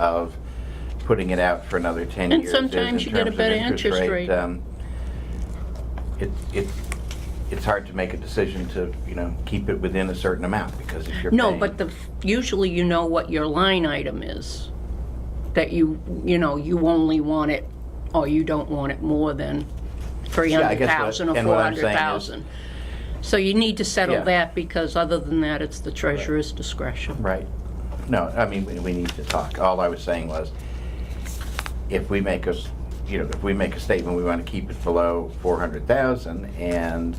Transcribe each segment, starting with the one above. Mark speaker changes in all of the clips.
Speaker 1: of putting it out for another 10
Speaker 2: And
Speaker 1: years. is
Speaker 2: sometimes
Speaker 1: in
Speaker 2: you get a
Speaker 1: terms of
Speaker 2: better interest rate.
Speaker 1: um, It, it, it's hard to make a decision to, you know, keep it within a certain amount because if you're
Speaker 2: No,
Speaker 1: paying-
Speaker 2: but the, usually you know what your line item is, that you, you know, you only want it, or you don't want it more than
Speaker 1: Yeah, I guess what-
Speaker 2: 300,000 or
Speaker 1: and what I'm saying is-
Speaker 2: 400,000. So you need to
Speaker 1: Yeah.
Speaker 2: settle that, because other than that, it's the treasurer's discretion.
Speaker 1: Right. No, I mean, we, we need to talk. All I was saying was, if we make a, s- you know, if we make a statement, we want to keep it below 400,000, and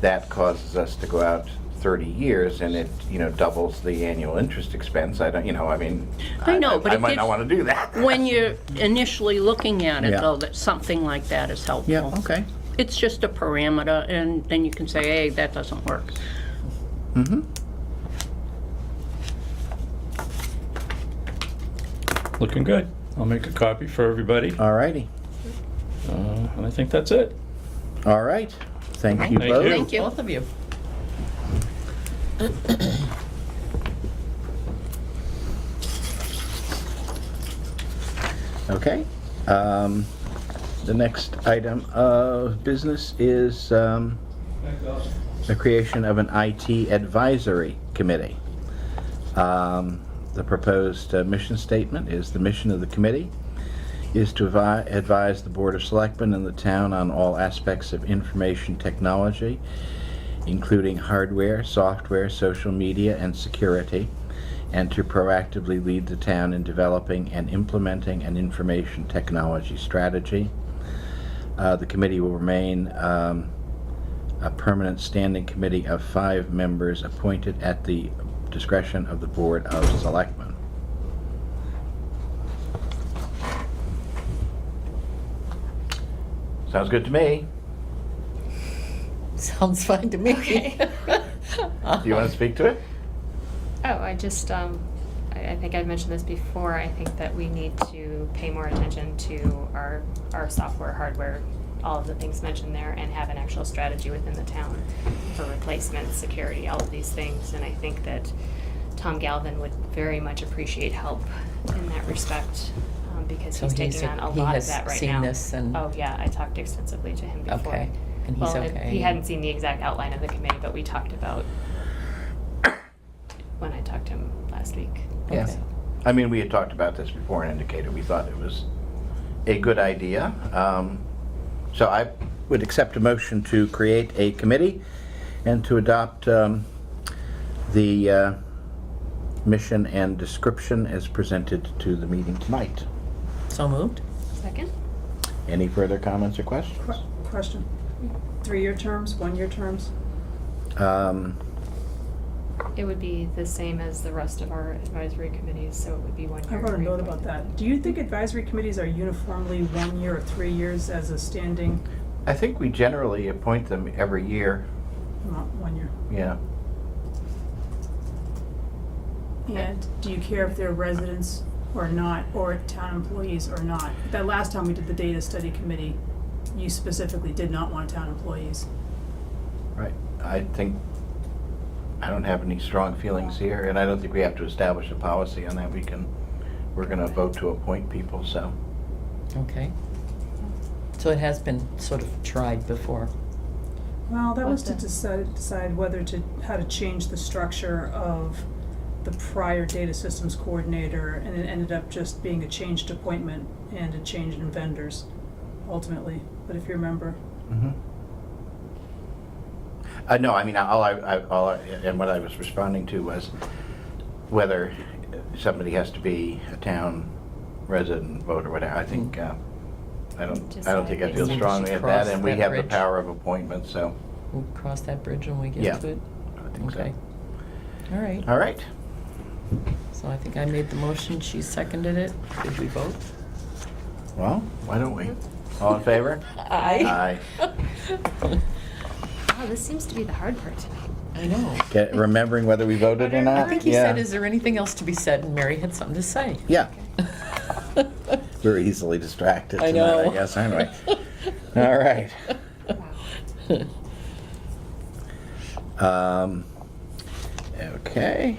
Speaker 1: that causes us to go out 30 years, and it, you know, doubles the annual interest expense, I don't, you know, I mean...
Speaker 2: I know, but
Speaker 1: I
Speaker 2: it
Speaker 1: might not
Speaker 2: gives-
Speaker 1: want to do that.
Speaker 2: When you're initially looking at it,
Speaker 3: Yeah.
Speaker 2: though, that something like that is helpful.
Speaker 3: Yeah, okay.
Speaker 2: It's just a parameter, and then you can say, hey, that doesn't work.
Speaker 4: Looking good. I'll make a copy for everybody,
Speaker 3: All righty.
Speaker 4: uh, and I think that's it.
Speaker 3: All right. Thank you
Speaker 4: Thank
Speaker 3: both.
Speaker 4: you.
Speaker 2: Thank you.
Speaker 5: Both of you.
Speaker 3: Okay. Um, The next item of business is um, the creation of an IT advisory committee. Um, The proposed uh, mission statement is, "The mission of the committee is to avi- advise the Board of Selectmen and the town on all aspects of information technology, including hardware, software, social media, and security, and to proactively lead the town in developing and implementing an information technology strategy. Uh, the committee will remain um, a permanent standing committee of five members appointed at the discretion of the Board of Selectmen.
Speaker 1: Sounds good to me.
Speaker 5: Sounds fine to me.
Speaker 1: Do you want to speak to it?
Speaker 6: Oh, I just, um, I, I think I mentioned this before, I think that we need to pay more attention to our, our software, hardware, all of the things mentioned there, and have an actual strategy within the town for replacement, security, all of these things, and I think that Tom Galvin would very much appreciate help in that respect, um, because
Speaker 5: So
Speaker 6: he's
Speaker 5: he's-
Speaker 6: taking on a
Speaker 5: he
Speaker 6: lot of
Speaker 5: has
Speaker 6: that right
Speaker 5: seen
Speaker 6: now.
Speaker 5: this and-
Speaker 6: Oh, yeah, I talked extensively to him before.
Speaker 5: Okay, and he's
Speaker 6: Well,
Speaker 5: okay.
Speaker 6: he hadn't seen the exact outline of the committee, but we talked about when I talked to him last week.
Speaker 3: Yeah.
Speaker 5: Okay.
Speaker 1: I mean, we had talked about this before and indicated we thought it was a good idea. Um, So I,
Speaker 3: Would accept a motion to create a committee and to adopt um, the uh, mission and description as presented to the meeting tonight.
Speaker 5: So moved?
Speaker 6: Second?
Speaker 3: Any further comments or questions?
Speaker 7: Que- Question. Three-year terms, one-year terms?
Speaker 3: Um,
Speaker 6: It would be the same as the rest of our advisory committees, so it would be one
Speaker 7: I
Speaker 6: year.
Speaker 7: wrote a note
Speaker 6: reappointment.
Speaker 7: about that. Do you think advisory committees are uniformly one year or three years as a standing,
Speaker 1: I think we generally appoint them every year,
Speaker 7: not one year?
Speaker 1: you know.
Speaker 7: And do you care if they're residents or not, or town employees or not? That last time we did the data study committee, you specifically did not want town employees.
Speaker 1: Right. I think, I don't have any strong feelings here, and I don't think we have to establish a policy on that. We can, we're going to vote to appoint people, so.
Speaker 5: Okay. So it has been sort of tried before.
Speaker 7: Well, that was to
Speaker 6: What's
Speaker 7: decide, decide whether to, how to change the structure of the prior data systems coordinator, and it ended up just being a changed appointment and a change in vendors ultimately, but if you remember.
Speaker 1: mhm. Uh, no, I mean, all I, I, all I, and what I was responding to was whether somebody has to be a town resident voter, whatever. I think, uh, I don't, I don't think I feel
Speaker 5: Mm-hmm. Just, I think
Speaker 1: strongly
Speaker 5: we
Speaker 1: at that,
Speaker 5: should
Speaker 1: and we
Speaker 5: cross
Speaker 1: have the
Speaker 5: that bridge.
Speaker 1: power of appointment, so.
Speaker 5: We'll cross that bridge when we
Speaker 1: Yeah.
Speaker 5: get to it.
Speaker 1: I think so.
Speaker 5: Okay. All right.
Speaker 1: All right.
Speaker 5: So I think I made the motion, she seconded it. Did we vote?
Speaker 3: Well,
Speaker 1: Why don't we? All in favor? Aye.
Speaker 6: Oh, this seems to be the hard part tonight.
Speaker 5: I know.
Speaker 3: get- remembering whether we voted or not?
Speaker 5: I think he said,
Speaker 3: Yeah.
Speaker 5: is there anything else to be said? And Mary had something to say.
Speaker 3: Yeah, we're easily distracted
Speaker 5: I
Speaker 3: tonight, I
Speaker 5: know.
Speaker 3: guess, aren't we? All right. Um, Okay.